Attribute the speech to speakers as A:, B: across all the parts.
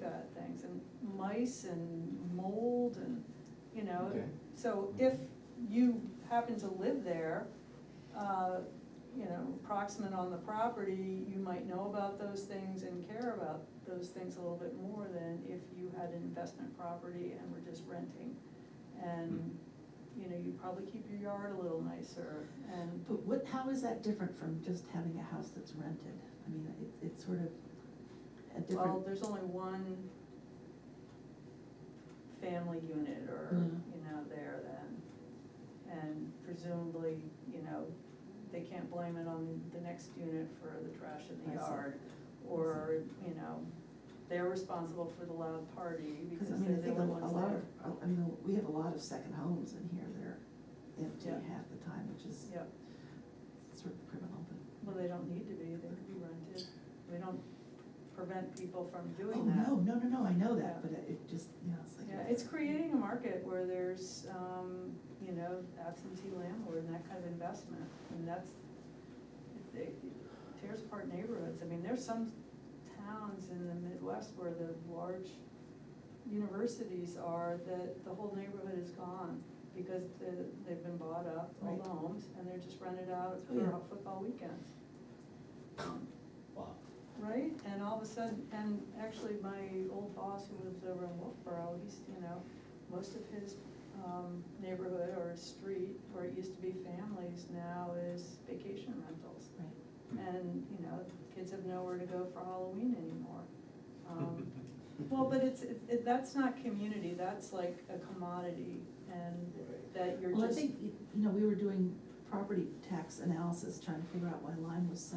A: bad things, and mice and mold and, you know,
B: Okay.
A: so if you happen to live there, uh, you know, proximate on the property, you might know about those things and care about those things a little bit more than if you had an investment property and were just renting. And, you know, you probably keep your yard a little nicer and,
C: Um, But what, how is that different from just having a house that's rented? I mean, it, it's sort of a
A: well,
C: different,
A: there's only one family unit or,
C: Mhm.
A: you know, there then. And presumably, you know, they can't blame it on the next unit for the trash in the
C: I see.
A: yard. Or, you know, they're responsible for the loud party
C: because I
A: because
C: mean,
A: they're
C: I
A: the
C: think a a
A: only ones there.
C: lot of, I mean, we have a lot of second homes in here, they're empty
A: Yeah.
C: half the time, which is
A: Yep,
C: sort of criminal, but.
A: well, they don't need to be, they could be rented, we don't prevent people from
C: Oh,
A: doing that.
C: no, no, no, no, I know that,
A: Yeah.
C: but it just, yeah, it's like.
A: Yeah, it's creating a market where there's, um, you know, absentee landlord and that kind of investment, and that's, it- it tears apart neighborhoods, I mean, there's some towns in the Midwest where the large universities are, that the whole neighborhood is gone, because the, they've been bought up, all
C: Right.
A: the homes, and they're just rented out
C: Oh, yeah.
A: for football weekends. Um,
B: Wow.
A: Right, and all of a sudden, and actually my old boss who lives over in Wolfboro, he's, you know, most of his, um, neighborhood or street where it used to be families now is vacation rentals.
C: Right,
A: And, you know, kids have nowhere to go for Halloween anymore. Um, Well, but it's, it, it- that's not community, that's like a commodity and
B: Right.
A: that you're just.
C: well, I think, you know, we were doing property tax analysis, trying to figure out why Lyme was so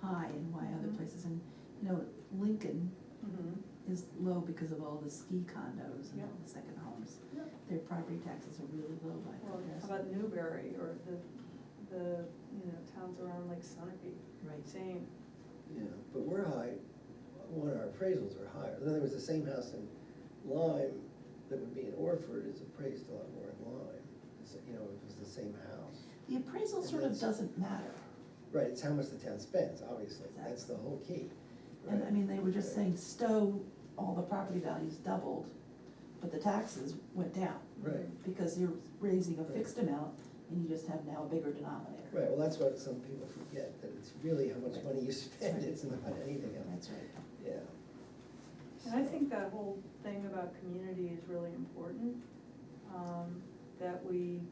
C: high and why other
A: Mhm.
C: places, and, you know, Lincoln
A: Mhm.
C: is low because of all the ski condos and
A: Yeah.
C: all the second homes. Their property taxes are really low by
A: Well, how
C: comparison.
A: about Newberry or the, the, you know, towns around like Sunapee,
C: Right.
A: same.
D: Yeah, but we're high, one, our appraisals are higher. In other words, the same house in Lyme that would be in Orford is appraised a lot more in Lyme. It's, You know, if it was the same house.
C: The appraisal
D: And
C: sort of
D: that's-
C: doesn't matter.
D: Right, it's how much the town spends, obviously. That's the whole key.
C: And I
D: right?
C: mean, they were just
D: Right.
C: saying Stowe, all the property values doubled, but the taxes went down.
D: Right,
C: Because you're raising a
D: Right.
C: fixed amount and you just have now a bigger denominator.
D: right, well, that's what some people forget, that it's really how much money you spend,
C: Right.
D: it's not anything else,
C: That's right.
D: yeah.
A: And I think that whole thing about community is really important, um, that we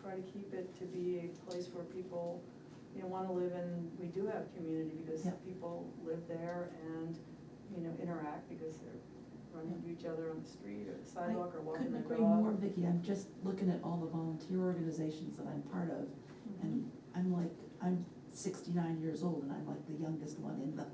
A: try to keep it to be a place where people, you know, wanna live in, we do have community because
C: Yeah.
A: people live there and, you know, interact because they're running into each other on the street or the
C: I
A: sidewalk or walking
C: Couldn't
A: their dog.
C: agree more, Vicky. I'm just looking at all the volunteer organizations that I'm part of
A: Mm-hmm.
C: and I'm like, I'm sixty-nine years old and I'm like the youngest one in them.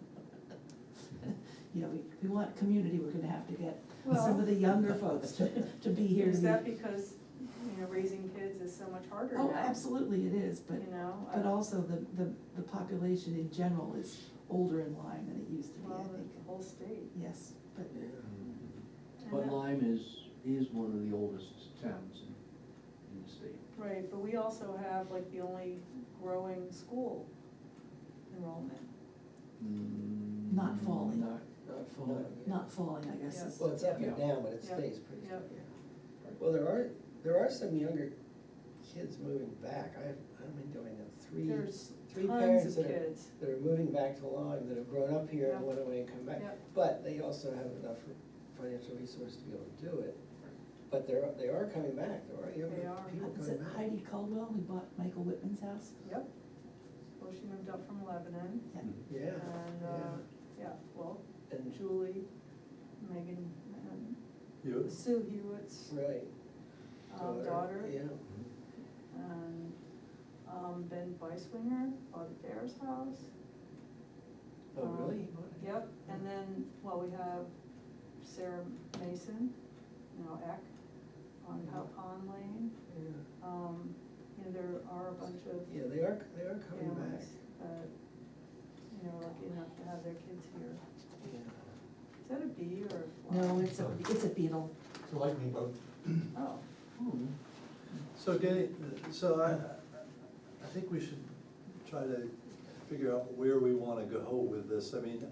C: You know, we, we want community, we're gonna have to get some
A: Well-
C: of the younger folks to, to be here to
A: Is
C: be.
A: that because, you know, raising kids is so much harder now?
C: Oh, absolutely it is, but,
A: You know? I-
C: but also the, the, the population in general is older in Lyme than it used to be,
A: Well,
C: I think.
A: the whole state.
C: Yes, but,
D: Yeah.
A: And
B: But
A: that-
B: Lyme is, is one of the oldest towns in, in the state.
A: Right, but we also have like the only growing school enrollment.
C: Not falling.
B: Not,
D: Not
B: falling.
D: yeah.
C: not falling, I guess, is.
D: Well, it's up and
B: Yeah.
D: down, but it
A: Yeah.
D: stays pretty
A: Yeah.
D: steady. Well, there are, there are some younger kids moving back. I, I've been doing that, three,
A: There's
D: three
A: tons
D: parents
A: of
D: that are,
A: kids.
D: that are moving back to Lyme, that have grown up here and
A: Yeah.
D: went away and come back.
A: Yeah.
D: But they also have enough financial resource to be able to do it. But they're, they are coming back, there are
A: They
D: younger
A: are.
D: people
C: Is
D: coming
C: it
D: back.
C: Heidi Caldwell who bought Michael Whitman's house?
A: Yep. Well, she moved up from Lebanon
C: Yeah.
B: Mm-hmm.
D: Yeah,
A: and, uh, yeah, well,
D: yeah, and,
A: Julie, Megan, and
E: You,
A: Sue Hewitt's
D: right.
A: uh, daughter.
D: Yeah,
A: And, um, Ben Beiswinger bought Adair's house.
D: oh,
A: Um,
D: really?
A: Yep, and then, well, we have Sarah Mason, now Eck, on Cow Pond Lane.
D: Yeah.
A: Um, you know, there are a bunch of
D: Yeah, they are, they are coming back,
A: families that, you know, are lucky enough to have their kids here.
D: yeah.
A: Is that a bee or a fly?
C: No, it's a, it's a beetle.
E: it's a lightning bug.
A: Oh,
B: Hmm.
E: So Danny, so I, I think we should try to figure out where we wanna go with this. I mean,